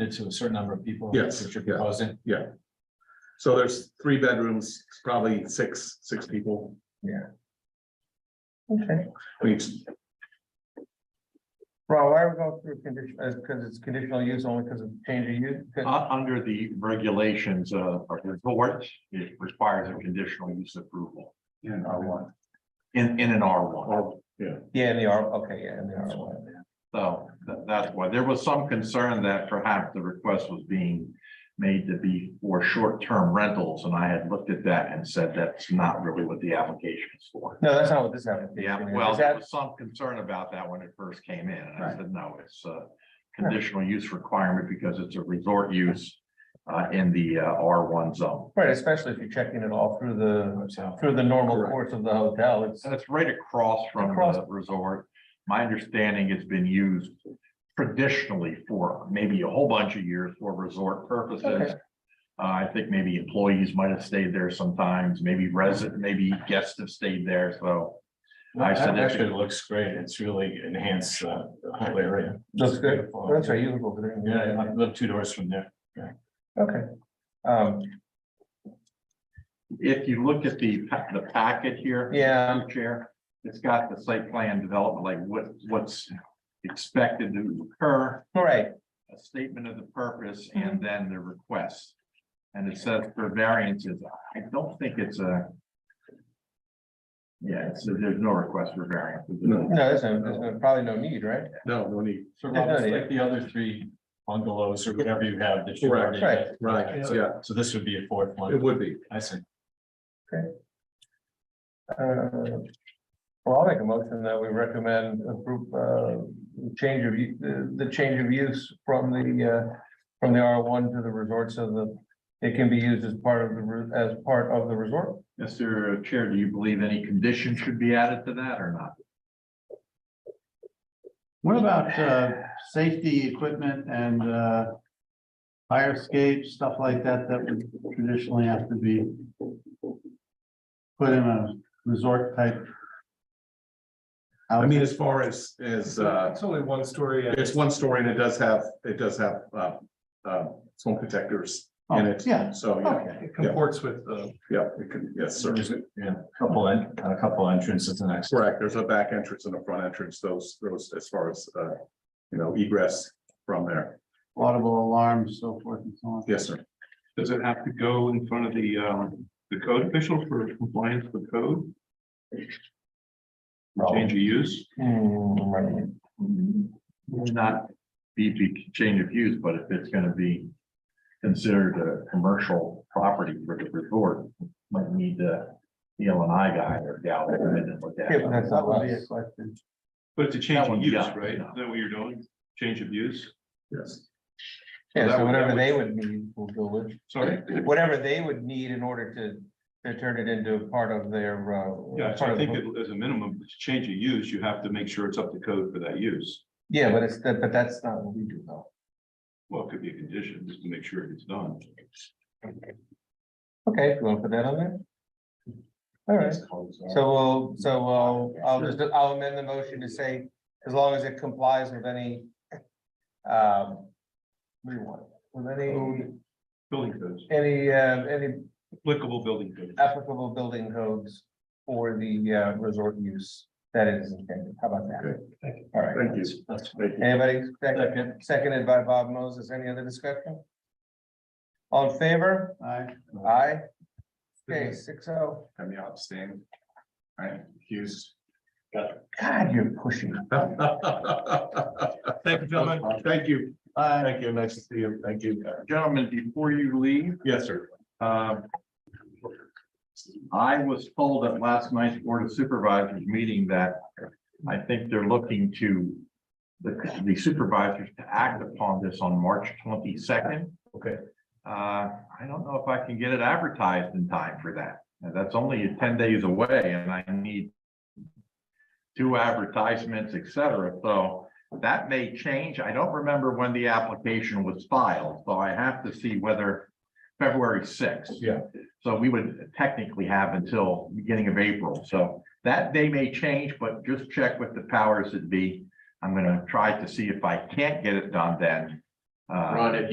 limited to a certain number of people. Yes, That's what you're yeah. proposing. So there's three bedrooms, probably six, six people. Okay, We, well, why are we going through condition, uh, because it's conditional use only because of change of use? 'Cause- Uh, under the regulations of of the board, it requires a conditional use approval and I want, in, in an R one. oh, yeah, Yeah, in the R, okay, yeah, in the R one. So tha- that's why there was some concern that perhaps the request was being made to be for short-term rentals. And I had looked at that and said that's not really what the application is for. No, that's not what this Yeah, application is. well, Is there that- was some concern about that when it first came in, and I Right. said, no, it's a conditional use requirement because it's a resort use uh, in the R one zone. Right, especially if you're checking it all through the, Hotel. through the normal Correct. course of the hotel, it's, And it's right across from Across. the resort. My understanding it's been used traditionally for maybe a whole bunch of years for resort purposes. Okay. Uh, I think maybe employees might have stayed there sometimes, maybe resident, maybe guests have stayed there, so. I said that- Actually, it looks great. It's really enhanced uh, the whole area. that's good. Beautiful. That's right, you live over there. Yeah, I live two doors from there. Okay. Um, If you look at the, pa- the packet here. Yeah. um, Chair, it's got the site plan development, like what, what's expected to occur, all right, a statement of the purpose, and then the request. And it says for variances, I don't think it's a. Yeah, it's, there's no request for variance. No. no, there's no, there's no- probably no need, right? no, no need, So Rob, it's like the other three bungalows or whatever you have that you already. Correct, have. right, So- yeah, So this would be a fourth it one. would be. I see. Uh, Well, I'll make a motion that we recommend a group, uh, change of, u- the, the change of use from the, uh, from the R one to the resort so that it can be used as part of the, re- as part of the resort. Mr. Chair, do you believe any condition should be added to that or not? What about uh, safety equipment and uh, fire escapes, stuff like that, that would traditionally have to be put in a resort type? I mean, as far as, as, uh, It's only one story. and it's one story and it does have, it does have, uh, uh, smoke detectors in it. Oh, Yeah, So, yeah, okay, It comports with the. yeah, it can, yes, So sir. there's, yeah, a couple, en- a couple entrances the next. Correct, there's a back entrance and a front entrance, those, those, as far as, uh, you know, egress from there. audible alarms, so forth and so on. Yes, sir. Does it have to go in front of the, um, the code official for compliance with code, change of use? Hmm, right. Not be, be change of use, but if it's gonna be considered a commercial property for the resort, might need the EL and I guy or gal to come in and look at Yeah, but it. that's That not would be a us. question. But it's a That change one, of use, yeah, right? Is yeah. that what you're doing? Change of use? Yes. Yeah, That so would- whatever that they would need, we'll go with, Sorry? whatever they would need in order to, to turn it into part of their, uh. Yeah, so part I of the- think that as a minimum, it's change of use, you have to make sure it's up to code for that use. Yeah, but it's, that- but that's not what we do though. Well, it could be a condition, just to make sure it's done. Okay, you want to put that on there? All right, so we'll, so we'll, I'll just, I'll amend the motion to say, as long as it complies with any. Um, what do you want, with any, Building codes, any, uh, any applicable building codes. applicable building codes for the uh, resort use that it is intended, how about that? All right, Thank you. That's- Thank you. anybody, second- Second, seconded by Bob Moses, any other discussion? All in favor? I, Aye. Okay, six oh. And the abstain. Right, Hughes. God, you're pushing. Thank you, gentlemen. Thank you. Thank you. Nice to see you. Thank you. Gentlemen, before you leave, Yes, sir. um, I was told at last night's Board of Supervisors meeting that I think they're looking to the the supervisors to act upon this on March twenty-second. Okay. Uh, I don't know if I can get it advertised in time for that. Now, That's only ten days away and I need two advertisements, et cetera. So that may change. I don't remember when the application was filed, so I have to see whether February sixth. Yeah. So we would technically have until beginning of April. So that day may change, but just check with the powers that be. I'm gonna try to see if I can't get it done then. Uh, Ron, if